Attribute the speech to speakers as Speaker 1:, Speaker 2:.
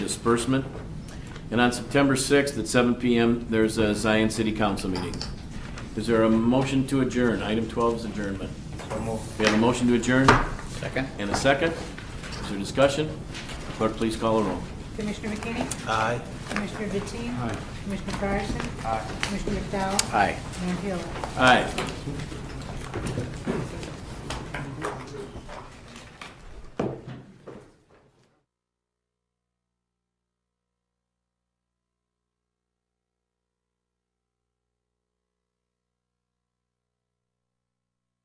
Speaker 1: disbursement. And on September 6th at 7 PM, there's a Zion City Council meeting. Is there a motion to adjourn? Item 12 is adjournment. We have a motion to adjourn
Speaker 2: Second?
Speaker 1: and a second. Is there discussion? Clerk, please call a roll.
Speaker 3: Commissioner McKinney?
Speaker 4: Aye.
Speaker 3: Commissioner Deteen? Aye. Commissioner Fryerson? Aye. Commissioner McDowell?
Speaker 1: Aye.
Speaker 3: Mayor Hill?
Speaker 1: Aye.